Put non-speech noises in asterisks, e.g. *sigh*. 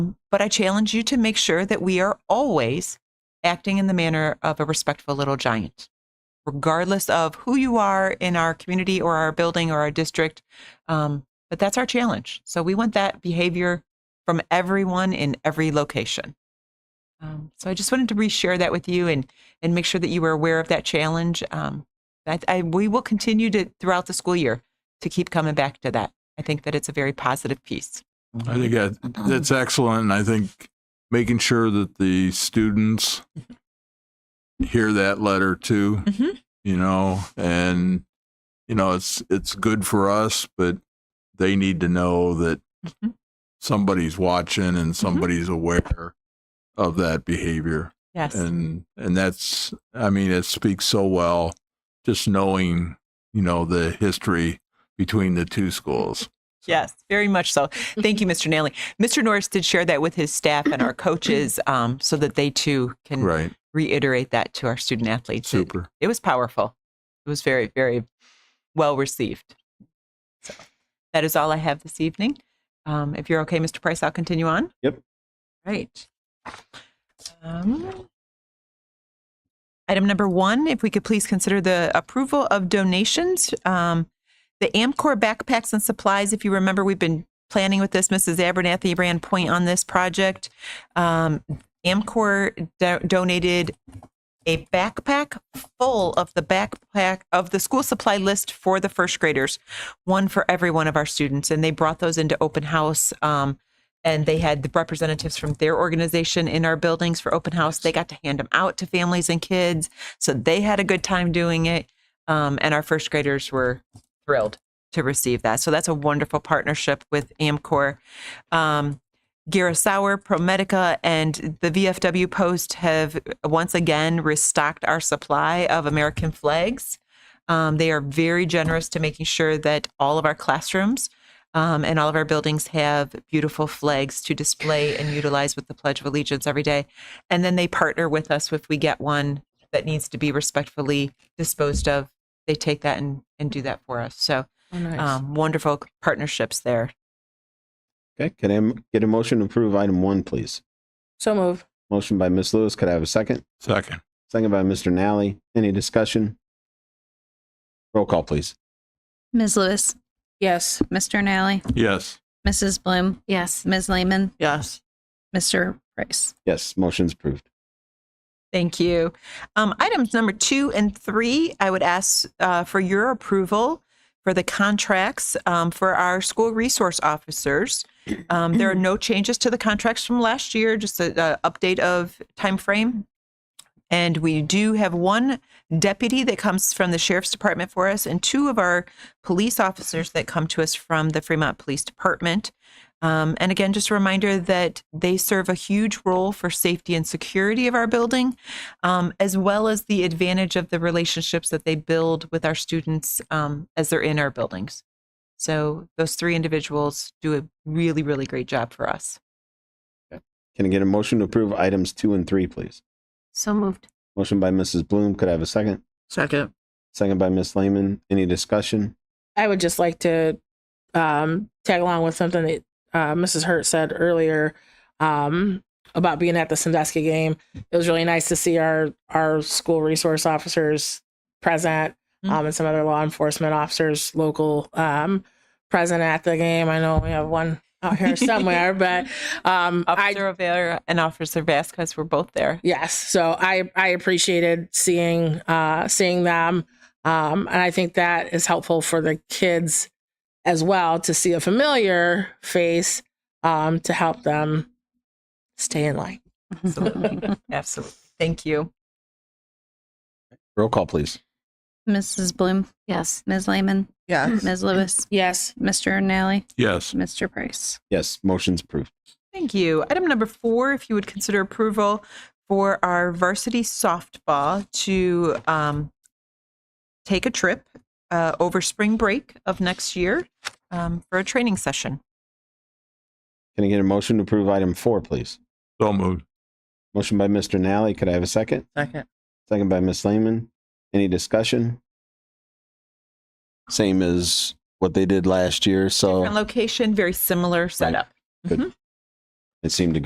But I challenge you to make sure that we are always acting in the manner of a respectful little giant, regardless of who you are in our community or our building or our district. Um, but that's our challenge. So we want that behavior from everyone in every location. Um, so I just wanted to reshare that with you and and make sure that you were aware of that challenge. Um, I, I, we will continue to throughout the school year to keep coming back to that. I think that it's a very positive piece. I think that- Um, that's excellent. And I think making sure that the students hear that letter too, Mhm. you know, and, you know, it's, it's good for us, but they need to know that Mhm. somebody's watching Mm-hmm. and somebody's aware of that behavior. Yes. And, and that's, I mean, it speaks so well, just knowing, you know, the history between the two schools. Yes, very much so. Thank you, Mr. Nally. Mr. Norris did share that with his staff and our coaches um, so that they too can Right. reiterate that to our student athletes. Mm-hmm. It- Super. It, was powerful. It was very, very well received. So that is all I have this evening. Um, if you're okay, Mr. Price, I'll continue on. Yep. Right. Um, item number one, if we could please consider the approval of donations. Um, the Amcor backpacks and supplies, if you remember, we've been planning with this. Mrs. Abernathy ran point on this project. Um, Amcor do- donated a backpack full of the backpack of the school supply list for the first graders, one for every one of our students. And they brought those into open house. Um, and they had the representatives from their organization in our buildings for open house. They got to hand them out to families and kids. So they had a good time doing it. Um, and our first graders were thrilled to receive that. So that's a wonderful partnership with Amcor. Um, Sauer, Prometica, and the VFW Post have once again restocked our supply of American flags. Um, they are very generous to making sure that all of our classrooms um, and all of our buildings have beautiful flags to display and utilize with the Pledge of Allegiance every day. And then they partner with us if we get one that needs to be respectfully disposed of. They take that and, and do that for us. So Oh, um, wonderful partnerships there. Okay, can I m- get a motion to approve item one, please? So move. Motion by Ms. Lewis. Could I have a second? Second. Second by Mr. Nally. Any discussion? Roll call, please. Ms. Lewis, Yes. Mr. Nally, Yes. Mrs. Bloom, Yes. Ms. Lehman, Yes. Mr. Price. Yes, motion's approved. Thank you. Um, items number two and three, I would ask uh, for your approval for the contracts um, for our school resource officers. Um, there are no changes to the contracts from last year, just an update of time frame. And we do have one deputy that comes from the sheriff's department for us, and two of our police officers that come to us from the Fremont Police Department. Um, and again, just a reminder that they serve a huge role for safety and security of our building, um, as well as the advantage of the relationships that they build with our students um, as they're in our buildings. So those three individuals do a really, really great job for us. Can I get a motion to approve items two and three, please? So moved. Motion by Mrs. Bloom. Could I have a second? Second. Second by Ms. Lehman. Any discussion? I would just like to um, tag along with something that uh, Mrs. Hurt said earlier um, about being at the Sandusky game. It was really nice to see our our school resource officers present Mm-hmm. um, and some other law enforcement officers local um, present at the game. I know we have one *laughs* out *laughs* here somewhere, but um, I Officer Rivera and Officer Vasquez were both there. Yes. So I I appreciated seeing uh seeing them. Um and I think that is helpful for the kids as well to see a familiar face um to help them stay in line. *laughs* Absolutely. Absolutely. Thank you. Roll call, please. Mrs. Bloom, Yes. Ms. Lehman, Yes. Ms. Lewis, Yes. Mr. Nally, Yes. Mr. Price. Yes, motion's approved. Thank you. Item number four, if you would consider approval for our varsity softball to um, take a trip uh, over spring break of next year um, for a training session. Can I get a motion to approve item four, please? So moved. Motion by Mr. Nally. Could I have a second? Second. Second by Ms. Lehman. Any discussion? Same as what they did last year, so. Different location, very similar setup. It seemed to